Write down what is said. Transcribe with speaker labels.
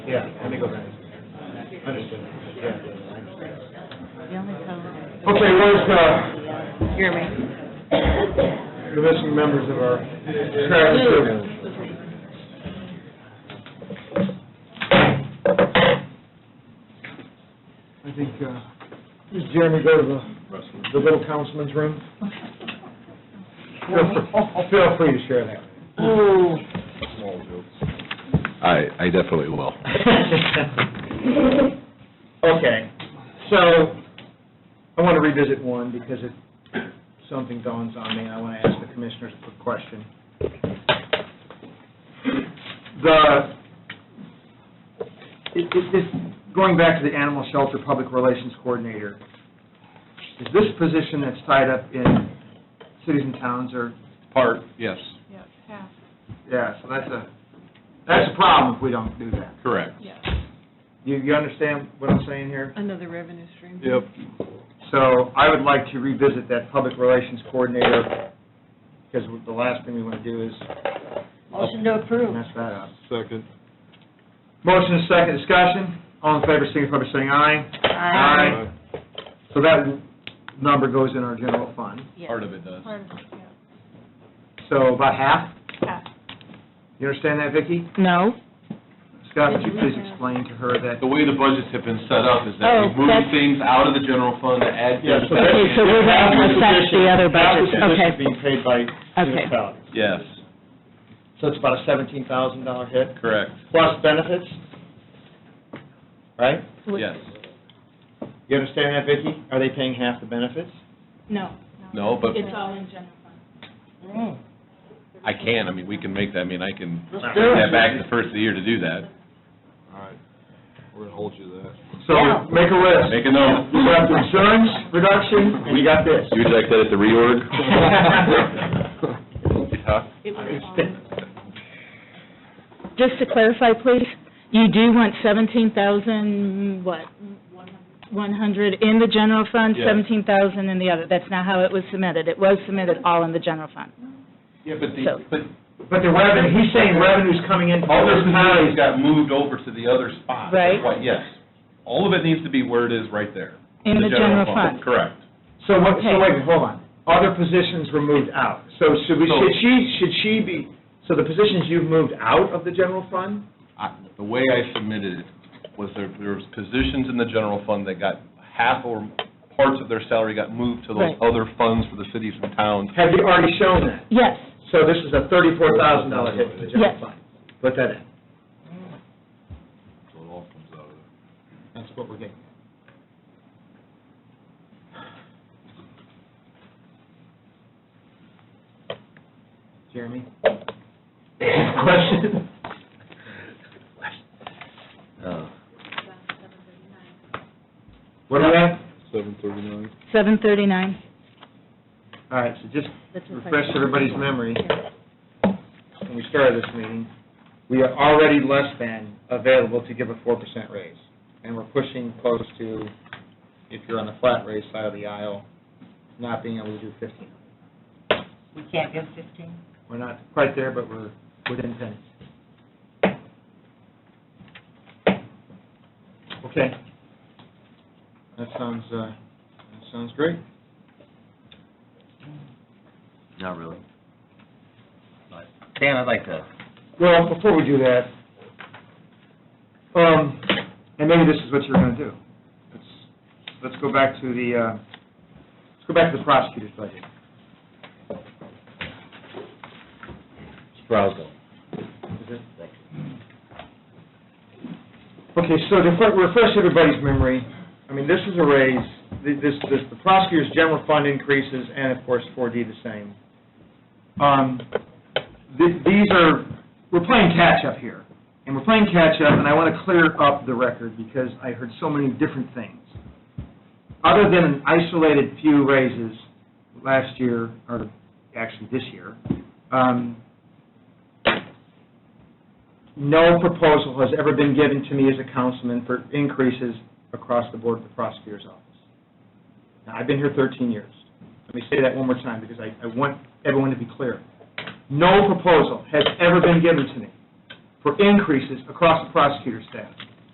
Speaker 1: Yeah, let me go back. Understood, yeah, I understand.
Speaker 2: The only problem,
Speaker 1: Okay, where's the
Speaker 2: hear me?
Speaker 1: the missing members of our trash crew? I think, uh, does Jeremy go to the, the little councilman's room? Feel free- Feel free to share that.
Speaker 3: I, I definitely will.
Speaker 1: Okay, so, I want to revisit one because it, something dawns on me, and I want to ask the commissioners a question. The, it, it, this, going back to the animal shelter public relations coordinator, is this position that's tied up in cities and towns or,
Speaker 3: Part, yes,
Speaker 4: Yes, half,
Speaker 1: yeah, so that's a, that's a problem if we don't do that.
Speaker 3: correct.
Speaker 4: yes.
Speaker 1: You, you understand what I'm saying here?
Speaker 4: Another revenue stream.
Speaker 3: Yep.
Speaker 1: So I would like to revisit that public relations coordinator, because the last thing we want to do is
Speaker 2: Motion to approve.
Speaker 1: mess that up.
Speaker 3: Second.
Speaker 1: Motion is second, discussion. All in favor, signify by saying aye. So that number goes in our general fund.
Speaker 2: Yes.
Speaker 3: Part of it does.
Speaker 4: Part of it, yeah.
Speaker 1: So about half.
Speaker 4: Half.
Speaker 1: You understand that, Vicki?
Speaker 5: No.
Speaker 1: Scott, would you please explain to her that?
Speaker 6: The way the budgets have been set up is that
Speaker 5: Oh,
Speaker 6: we move
Speaker 5: that's-
Speaker 6: things out of the general fund to add.
Speaker 1: Yeah, so
Speaker 5: Okay, so we're going to assess the other budget, okay.
Speaker 1: being paid by
Speaker 5: Okay.
Speaker 1: municipalities.
Speaker 6: Yes,
Speaker 1: So it's about a seventeen thousand dollar hit,
Speaker 6: correct,
Speaker 1: plus benefits, right?
Speaker 6: yes.
Speaker 1: You understand that, Vicki? Are they paying half the benefits?
Speaker 5: No.
Speaker 3: No, but
Speaker 5: It's all in general fund.
Speaker 3: I can, I mean, we can make that, I mean, I can
Speaker 1: Mm. Let's
Speaker 3: get
Speaker 1: do it.
Speaker 3: that back the first of the year to do that.
Speaker 1: So, make a list.
Speaker 3: Make a note.
Speaker 1: We got the insurance reduction, and you got this.
Speaker 3: You would like that at the reorg?
Speaker 5: Just to clarify, please, you do want seventeen thousand, what? One hundred in the general fund,
Speaker 3: Yes.
Speaker 5: seventeen thousand in the other. That's not how it was submitted. It was submitted all in the general fund.
Speaker 6: Yeah, but the,
Speaker 5: So-
Speaker 6: but
Speaker 1: But the revenue, he's saying revenue's coming in.
Speaker 6: all those money got moved over to the other spot. That's
Speaker 5: Right.
Speaker 6: why- Yes, all of it needs to be where it is right there.
Speaker 5: In the general fund.
Speaker 6: Correct.
Speaker 1: So what, so
Speaker 5: Okay.
Speaker 1: wait, hold on. Other positions were moved out. So should we,
Speaker 6: So-
Speaker 1: should she, should she be, so the positions you've moved out of the general fund?
Speaker 6: I- The way I submitted it was there, there was positions in the general fund that got half or parts of their salary got moved to those
Speaker 5: Right.
Speaker 6: other funds for the cities and towns.
Speaker 1: Have you already shown that?
Speaker 5: Yes,
Speaker 1: So this is a thirty-four thousand dollar hit to the general
Speaker 5: Yes.
Speaker 1: fund. Put that in.
Speaker 6: So it all comes out of there.
Speaker 1: That's what we're getting. Jeremy? Question? Uh. What are we at?
Speaker 3: Seven thirty-nine.
Speaker 5: seven thirty-nine.
Speaker 1: All right, so just
Speaker 5: That's what I-
Speaker 1: refresh everybody's memory. When we started this meeting, we are already less than available to give a four percent raise. And we're pushing close to, if you're on the flat raise side of the aisle, not being able to do fifteen.
Speaker 2: We can't go fifteen?
Speaker 1: We're not quite there, but we're within ten. Okay. That sounds, uh, that sounds great.
Speaker 7: Not really. But, Dan, I'd like to,
Speaker 1: Well, before we do that, um, and maybe this is what you're gonna do. Let's, let's go back to the, uh, let's go back to the prosecutor's budget.
Speaker 7: Strauss,
Speaker 1: Okay, so to fir- refresh everybody's memory, I mean, this is a raise, th- this, this, the prosecutor's general fund increases, and of course, 4D the same. Um, th- these are, we're playing catch-up here, and we're playing catch-up, and I want to clear up the record, because I heard so many different things. Other than an isolated few raises last year, or actually this year, um, no proposal has ever been given to me as a councilman for increases across the board of the prosecutor's office. Now, I've been here 13 years. Let me say that one more time, because I, I want everyone to be clear. No proposal has ever been given to me for increases across the prosecutor's staff.